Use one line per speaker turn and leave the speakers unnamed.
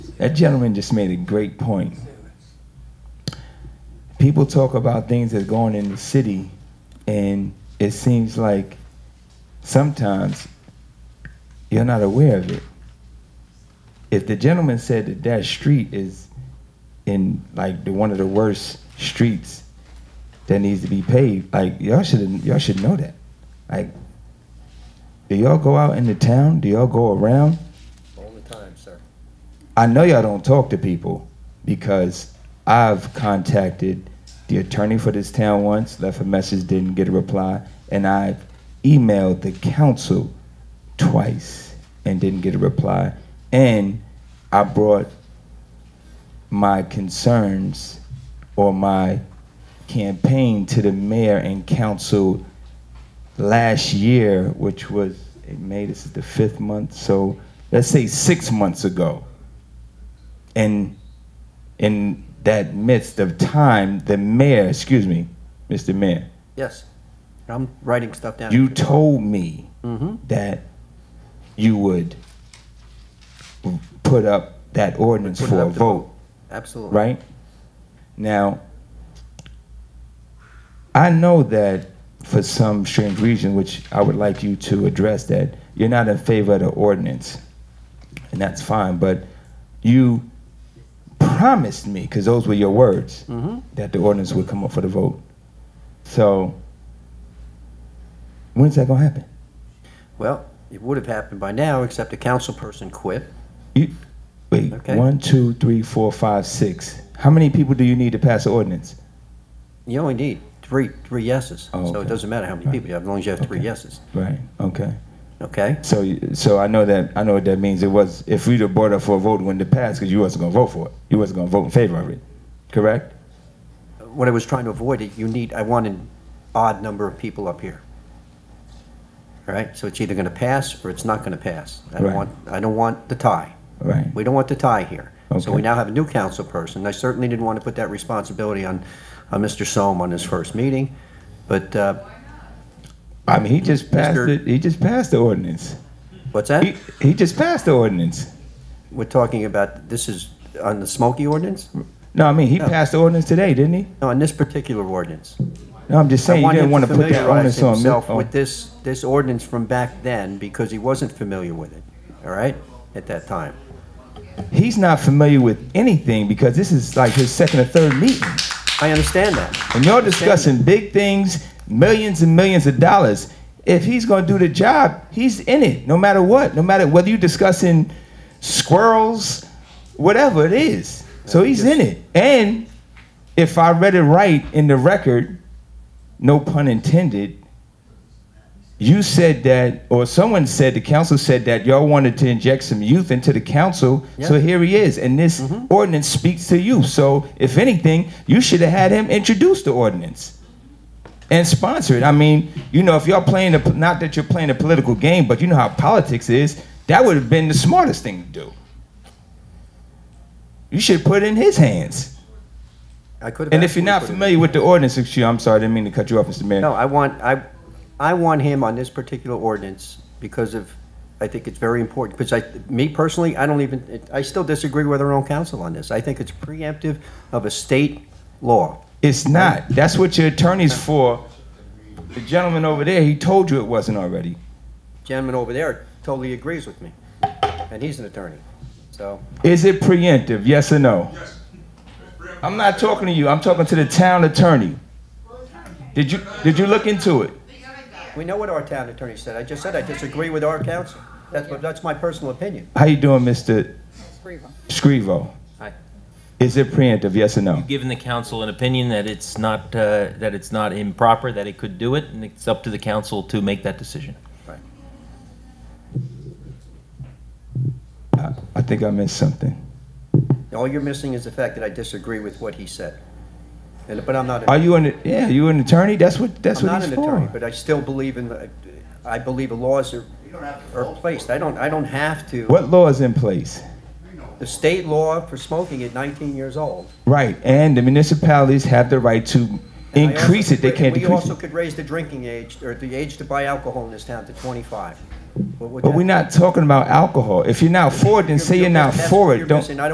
That gentleman just made a great point. People talk about things that's going in the city, and it seems like sometimes you're not aware of it. If the gentleman said that that street is in like the, one of the worst streets that needs to be paved, like y'all should y'all should know that. Like, do y'all go out in the town? Do y'all go around?
All the time, sir.
I know y'all don't talk to people because I've contacted the attorney for this town once, left a message, didn't get a reply, and I've emailed the council twice and didn't get a reply. And I brought my concerns or my campaign to the mayor and council last year, which was in May, this is the fifth month, so let's say six months ago. And in that midst of time, the mayor, excuse me, Mr. Mayor,
Yes. I'm writing stuff down.
you told me
Mhm.
that you would put up that ordinance
Put it
for a
up to
vote.
Absolutely.
right? Now, I know that for some strange reason, which I would like you to address, that you're not in favor of the ordinance, and that's fine, but you promised me, because those were your words,
Mhm.
that the ordinance would come up for the vote. So, when's that gonna happen?
Well, it would have happened by now, except a council person quit.
You, wait,
Okay.
one, two, three, four, five, six. How many people do you need to pass the ordinance?
You only need three, three yeses.
Oh,
So it
okay.
doesn't matter how many people you have, as long as you have three
Okay.
yeses,
Right, okay.
okay?
So, so I know that I know what that means. It was if we'd have brought up for a vote, it wouldn't have passed because you wasn't gonna vote for it. You wasn't gonna vote in favor of it, correct?
What I was trying to avoid, it. you need, I want an odd number of people up here. All right, so it's either gonna pass or it's not gonna pass. I don't
Right.
want, I don't want the tie.
Right.
We don't want the tie here. So we
Okay.
now have a new council person. I certainly didn't want to put that responsibility on, on Mr. Soam on his first meeting, but, uh,
I mean, he just passed
Mr.
it. He just passed the ordinance.
what's that?
He, he just passed the ordinance.
We're talking about, this is on the Smoky ordinance?
No, I mean he
No.
passed the ordinance today, didn't he?
No, on this particular ordinance.
No, I'm just
I
saying you didn't
him
want to put that
familiarize
ordinance on uh, me.
himself
on-
With this, this ordinance from back then, because he wasn't familiar with it, all right, at that time.
He's not familiar with anything because this is like his second or third meeting,
I understand that.
and y'all discussing big things, millions and millions of dollars. If he's gonna do the job, he's in it, no matter what, no matter whether you're discussing squirrels, whatever it is. So he's in it. And if I read it right in the record, no pun intended, you said that, or someone said, the council said that y'all wanted to inject some youth into the council. So
Yeah.
here he is. And this ordinance speaks to you. So if anything, you should have had him introduce the ordinance and sponsor it. I mean, you know, if y'all playing, a, not that you're playing a political game, but you know how politics is, that would have been the smartest thing to do. You should put it in his hands.
I could have.
And if you're not
absolutely
familiar with the ordinance, excuse, I'm sorry, I didn't mean to cut you off, Mr. Mayor.
put it- No, I want, I, I want him on this particular ordinance because of, I think it's very important, because I, me personally, I don't even, I still disagree with our own counsel on this. I think it's preemptive of a state law.
It's not. That's what your attorney's for. The gentleman over there, he told you it wasn't already.
Gentleman over there totally agrees with me, and he's an attorney, so.
Is it preemptive? Yes or no? Yes. I'm not talking to you. I'm talking to the town attorney. Did you did you look into it?
We know what our town attorney said. I just said I disagree with our counsel. That's, what- that's my personal opinion.
How you doing, Mr. Scrivo?
Hi.
Is it preemptive? Yes or no?
given the council an opinion that it's not, uh, that it's not improper, that it could do it, and it's up to the council to make that decision.
I, I think I missed something.
All you're missing is the fact that I disagree with what he said. And, but I'm not,
Are
I'm
you an yeah? You an attorney? That's what that's what
not
he's
an
for.
attorney, but I still believe in, the- I believe the laws are, are placed. I don't, I don't have to.
what law is in place?
The state law for smoking at 19 years old.
Right, and the municipalities have the right to
I also-
increase it. They can't
We
decrease
also
it.
could raise the drinking age, or the age to buy alcohol in this town to 25. What would
But
that-
we're not talking about alcohol. If you're not for it, then say you're not
that's
for
what
it.
you're
Don't
missing. I